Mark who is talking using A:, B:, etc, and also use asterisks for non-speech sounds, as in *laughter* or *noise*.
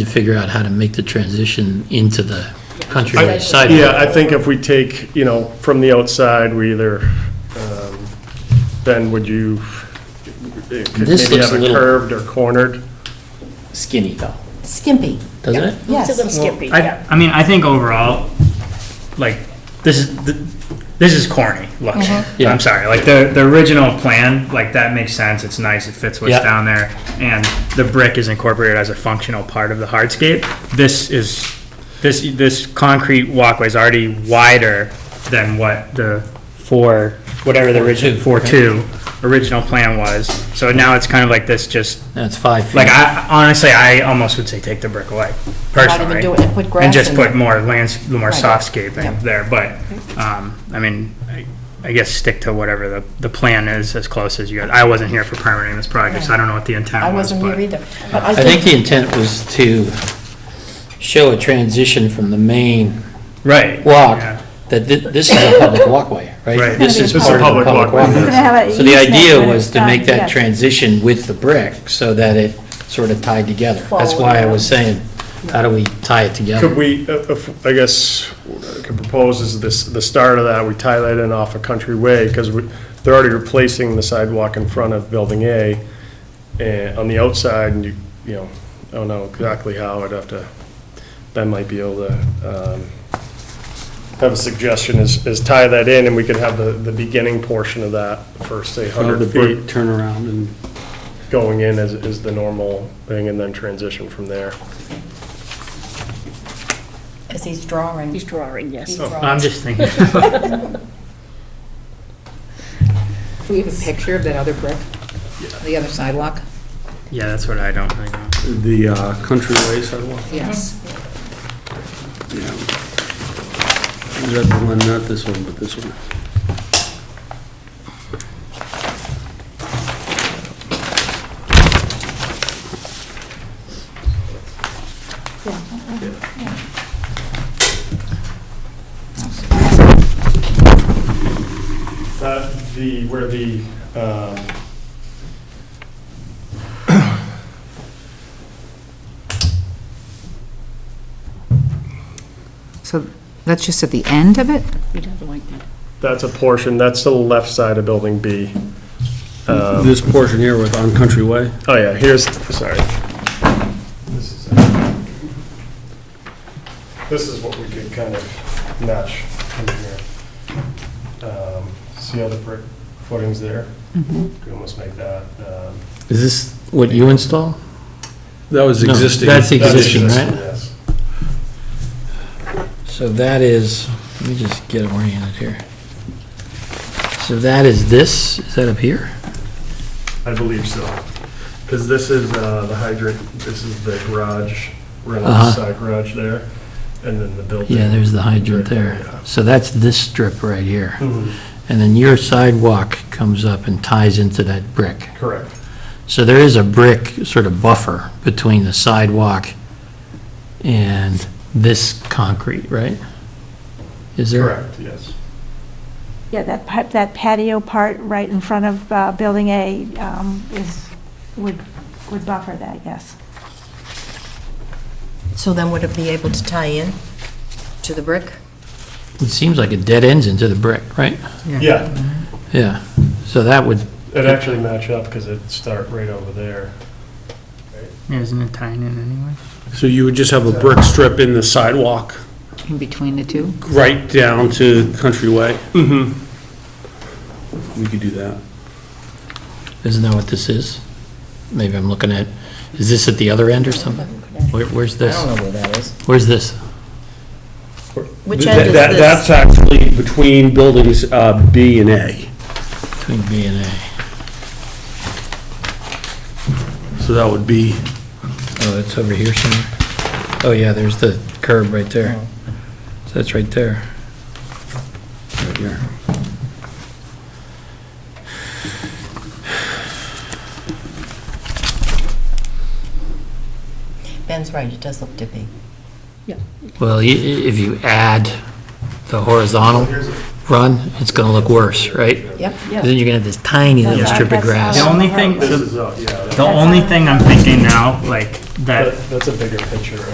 A: to figure out how to make the transition into the
B: I-
A: countryside.
B: Yeah, I think if we take, you know, from the outside, we either, um, then would you, it could
A: This
B: maybe
A: looks
B: have
A: a
B: it
A: little-
B: curved or cornered.
A: Skinny though,
C: Skimpy,
A: doesn't it?
C: yes.
D: It's a little skimpy,
E: I,
D: yeah.
E: I mean, I think overall, like, this is, th- this is corny looking.
C: Mm-hmm.
A: Yeah.
E: I'm sorry, like, the, the original plan, like, that makes sense, it's nice, it fits what's
A: Yeah.
E: down there, and the brick is incorporated as a functional part of the hardscape. This is, this, this concrete walkway is already wider than what the four, whatever the original, four-two original plan was, so now it's kind of like this just
A: That's five feet.
E: like I honestly, I almost would say take the brick away personally,
C: do it, put grass
E: and just
C: in
E: put
C: there.
E: more lands, more
C: Right.
E: softscaping
C: Yeah.
E: there. But um, I mean, I, I guess stick to whatever the, the plan is as close as you guys. I wasn't here for permitting this project, so I don't know what the intent
C: I
E: was.
C: wasn't
E: but
C: here either. But
A: I think the intent was to show a transition from the main
E: right,
A: walk,
E: Yeah.
A: that thi- this is a public walkway, right?
E: Right.
A: This
C: *laughs*
A: is
B: It's a
A: part of the
B: public
A: public
B: walkway,
A: walkway.
B: yes.
A: So the idea was to make that transition with the brick so that it sort of tied together. That's why I was saying, how do we tie it
B: Could
A: together?
B: we, uh, if- I guess, what I could propose is this, the start of that, we tie that in off a country way, because they're already replacing the sidewalk in front of Building A, and on the outside, and you, you know, I don't know exactly how, I'd have to, Ben might be able to, um, have a suggestion, is, is tie that in, and we could have the, the beginning portion of that, first, say,
F: Or the
B: hundred
F: brick
B: feet
F: turnaround and
B: going in as, is the normal thing, and then transition from there.
C: As he's drawing.
D: He's drawing,
C: He's
D: yes.
C: drawing.
E: I'm just thinking. *laughs*
G: Do we have a picture of that other brick? The other sidewalk?
E: yeah, that's what I don't. I know.
F: the uh, country way sidewalk.
G: Yes.
F: Yeah. Is that the one, not this one, but this one?
B: That, Uh, the, where the, um,
G: So that's just at the end of it?
D: He doesn't like that.
B: that's a portion, that's the left side of Building B. Um,
F: This portion here with on country way?
B: Oh, yeah, here's, sorry. This is This is what we could kind of match in here. Um, See how the brick footing's there? Could almost make that. um,
A: Is this what you install?
F: That was
A: No,
F: existing.
A: that's
B: that's
A: Existing, right?
B: Yes.
A: So that is, let me just get oriented here. So that is this, is that up here?
B: I believe so. Because this is uh, the hydrant, this is the garage,
A: Uh-huh.
B: Reynolds side garage there, and then the building.
A: Yeah, there's the hydrant there. So that's this strip right here.
B: Mm-hmm.
A: And then your sidewalk comes up and ties into that brick.
B: Correct.
A: So there is a brick sort of buffer between the sidewalk and this concrete, right? Is there?
B: Correct, yes.
H: Yeah, that pa- that patio part right in front of uh, Building A um, is, would, would buffer that, yes.
C: So then would it be able to tie in to the brick?
A: It seems like it dead ends into the brick, right?
B: Yeah,
A: Yeah. So that would,
B: it'd actually match up because it'd start right over there.
E: Yeah, isn't it tying in anyway?
F: So you would just have a brick strip in the sidewalk,
G: In between the two?
F: right down to country way? Mm-hmm. We could do that.
A: isn't that what this is? Maybe I'm looking at, is this at the other end or something? Where, where's this? I don't know where that is. Where's this?
C: Which
F: That-
C: end is
F: that-
C: this?
F: That's actually between buildings uh, B and A.
A: Between B and A.
F: So that would be,
A: Oh, it's over here somewhere? Oh, yeah, there's the curb right there. So that's right there.
F: right here.
C: Ben's right, it does look dippy.
A: Well, i- i- if you add the horizontal run, it's going to look worse, right?
C: Yep.
A: Then you're going to have this tiny little
H: Yeah.
A: strip of grass.
E: The only thing,
B: This is, uh, yeah. that's-
H: The
I: That's
H: only
I: all.
H: thing I'm thinking now, like, that
E: That- That's a bigger picture.